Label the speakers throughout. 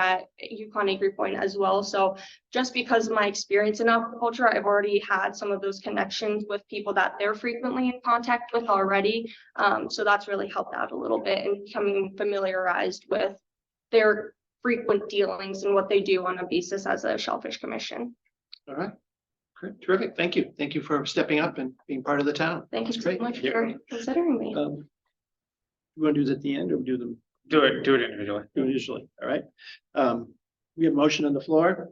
Speaker 1: at Yukon Acre Point as well. So just because of my experience in aquaculture, I've already had some of those connections with people that they're frequently in contact with already. Um, so that's really helped out a little bit in becoming familiarized with their frequent dealings and what they do on a basis as a shellfish commission.
Speaker 2: All right. Great, terrific. Thank you. Thank you for stepping up and being part of the town.
Speaker 1: Thank you
Speaker 2: That's
Speaker 1: so
Speaker 2: great.
Speaker 1: much
Speaker 2: Yeah.
Speaker 1: for considering me.
Speaker 2: Um, You want to do this at the end or do them
Speaker 3: Do it, do it individually.
Speaker 2: usually? All right. Um, we have motion on the floor.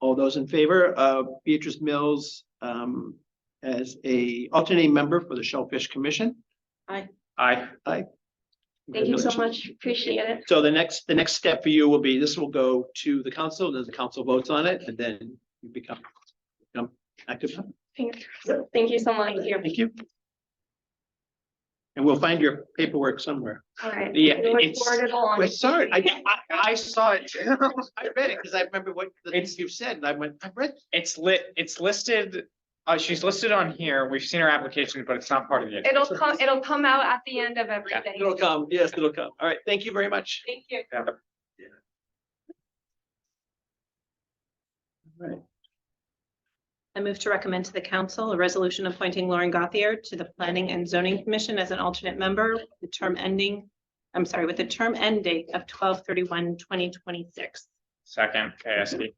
Speaker 2: All those in favor of Beatrice Mills, um, as a alternate member for the Shellfish Commission?
Speaker 3: Aye.
Speaker 1: Thank you so
Speaker 2: Congratulations.
Speaker 1: much. Appreciate it.
Speaker 2: So the next, the next step for you will be, this will go to the council, then the council votes on it, and then you become, become active.
Speaker 1: Thank you. Thank you so much.
Speaker 2: Thank you. And we'll find your paperwork somewhere.
Speaker 1: All right.
Speaker 2: Yeah,
Speaker 1: We look
Speaker 2: it's-
Speaker 1: forward to launch.
Speaker 2: I saw it. I, I, I saw it. too. I read it because I remember what the things you've said and I went, I read.
Speaker 3: It's lit, it's listed, uh, she's listed on here. We've seen her application, but it's not part of the.
Speaker 1: It'll come, it'll come out at the end of everything.
Speaker 2: It'll come. Yes, it'll come. All right. Thank you very much.
Speaker 1: Thank you.
Speaker 2: All right.
Speaker 4: I move to recommend to the council a resolution appointing Lauren Gothier to the Planning and Zoning Commission as an alternate member, with the term ending, I'm sorry, with the term end date of 2026.
Speaker 3: Second, KSD.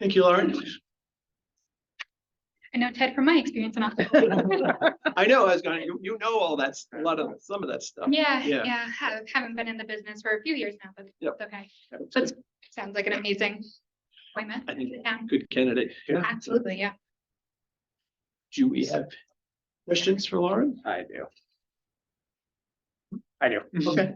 Speaker 2: Thank you, Lauren.
Speaker 5: I know Ted from my experience and all.
Speaker 2: I know, I was going, you, you know all that's, a lot of, some of that stuff.
Speaker 5: Yeah,
Speaker 2: Yeah.
Speaker 5: yeah, have- haven't been in the business for a few years now, but
Speaker 2: Yep.
Speaker 5: it's okay. That's, sounds like an amazing appointment.
Speaker 2: I think-
Speaker 5: Yeah,
Speaker 2: Good candidate. Yeah.
Speaker 5: Absolutely, yeah.
Speaker 2: Do we have questions for Lauren?
Speaker 3: I do. I do.
Speaker 2: Okay.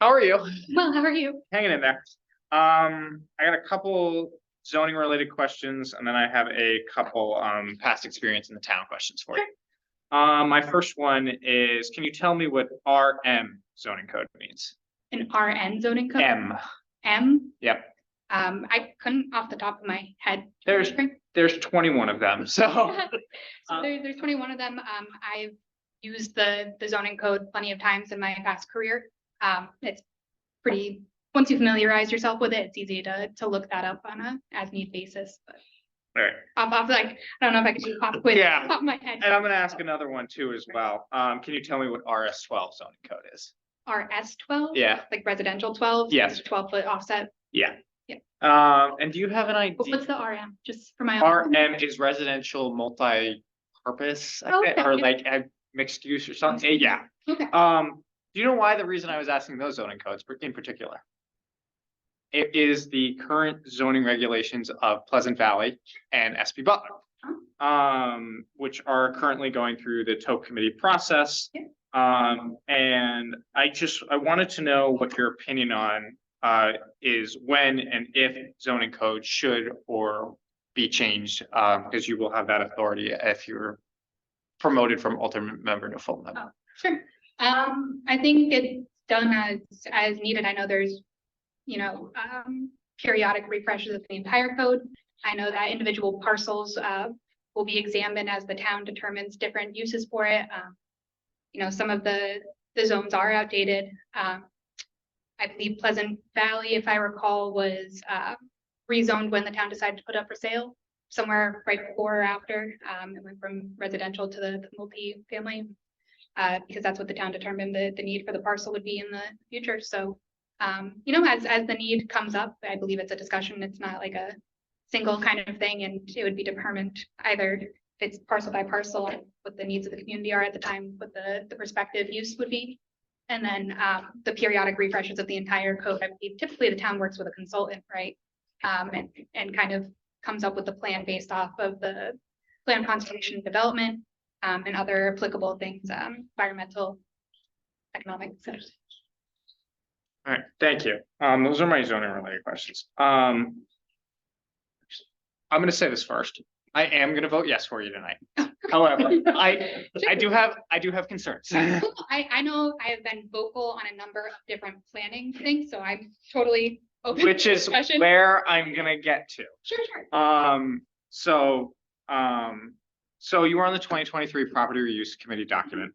Speaker 3: How are you?
Speaker 5: Well, how are you?
Speaker 3: Hanging in there. Um, I got a couple zoning related questions and then I have a couple, um, past experience in the town questions for you. Um, my first one is, can you tell me what RM zoning code means?
Speaker 5: An RN zoning code?
Speaker 3: M,
Speaker 5: M?
Speaker 3: Yep.
Speaker 5: Um, I couldn't off the top of my head.
Speaker 3: There's- there's twenty-one of them, so.
Speaker 5: So
Speaker 3: Uh,
Speaker 5: there, there's twenty-one of them. Um, I've used the, the zoning code plenty of times in my past career. Um, it's pretty, once you familiarize yourself with it, it's easy to, to look that up on a as need basis. But
Speaker 3: Alright,
Speaker 5: off, off, like, I don't know if I could do pop quiz.
Speaker 3: Yeah.
Speaker 5: Pop my head.
Speaker 3: and I'm gonna ask another one too as well. Um, can you tell me what RS twelve zoning code is?
Speaker 5: RS twelve?
Speaker 3: Yeah.
Speaker 5: Like residential twelve?
Speaker 3: Yes.
Speaker 5: Twelve foot offset.
Speaker 3: Um, and do you have an
Speaker 5: But
Speaker 3: idea?
Speaker 5: What's the RM? Just for my. own-
Speaker 3: RM is residential multi-purpose, I
Speaker 5: Oh, Okay.
Speaker 3: think, or like ag- mixed use or something, Eh, yeah.
Speaker 5: Okay.
Speaker 3: Um, do you know why the reason I was asking those zoning codes per- in particular? It is the current zoning regulations of Pleasant Valley and SB Butler. Um, which are currently going through the TOP committee process.
Speaker 5: Yeah.
Speaker 3: Um, and I just, I wanted to know what your opinion on, uh, is when and if zoning code should or be changed, um, because you will have that authority if you're promoted from alternate member to full member.
Speaker 5: Sure. Um, I think it's done as, as needed. I know there's, you know, um, periodic refreshes of the entire code. I know that individual parcels, uh, will be examined as the town determines different uses for it. Um, You know, some of the, the zones are outdated. Um, I believe Pleasant Valley, if I recall, was, uh, rezoned when the town decided to put up for sale somewhere right before or after. Um, it went from residential to the multi-family uh, because that's what the town determined the, the need for the parcel would be in the future, so. Um, you know, as, as the need comes up, I believe it's a discussion, it's not like a single kind of thing, and it would be determined either if it's parcel by parcel, what the needs of the community are at the time, what the, the prospective use would be. And then, um, the periodic refreshes of the entire code, I believe typically the town works with a consultant, right? Um, and, and kind of comes up with the plan based off of the plan conservation development, um, and other applicable things, um, environmental, economic, so.
Speaker 3: All right, thank you. Um, those are my zoning related questions. Um. I'm gonna say this first. I am gonna vote yes for you tonight. However, I, I do have, I do have concerns.
Speaker 5: I, I know I have been vocal on a number of different planning things, so I'm totally open. to
Speaker 3: Which is
Speaker 5: discussion.
Speaker 3: where I'm gonna get to.
Speaker 5: Sure, sure.
Speaker 3: Um, so, um, So you were on the twenty twenty-three property reuse committee document.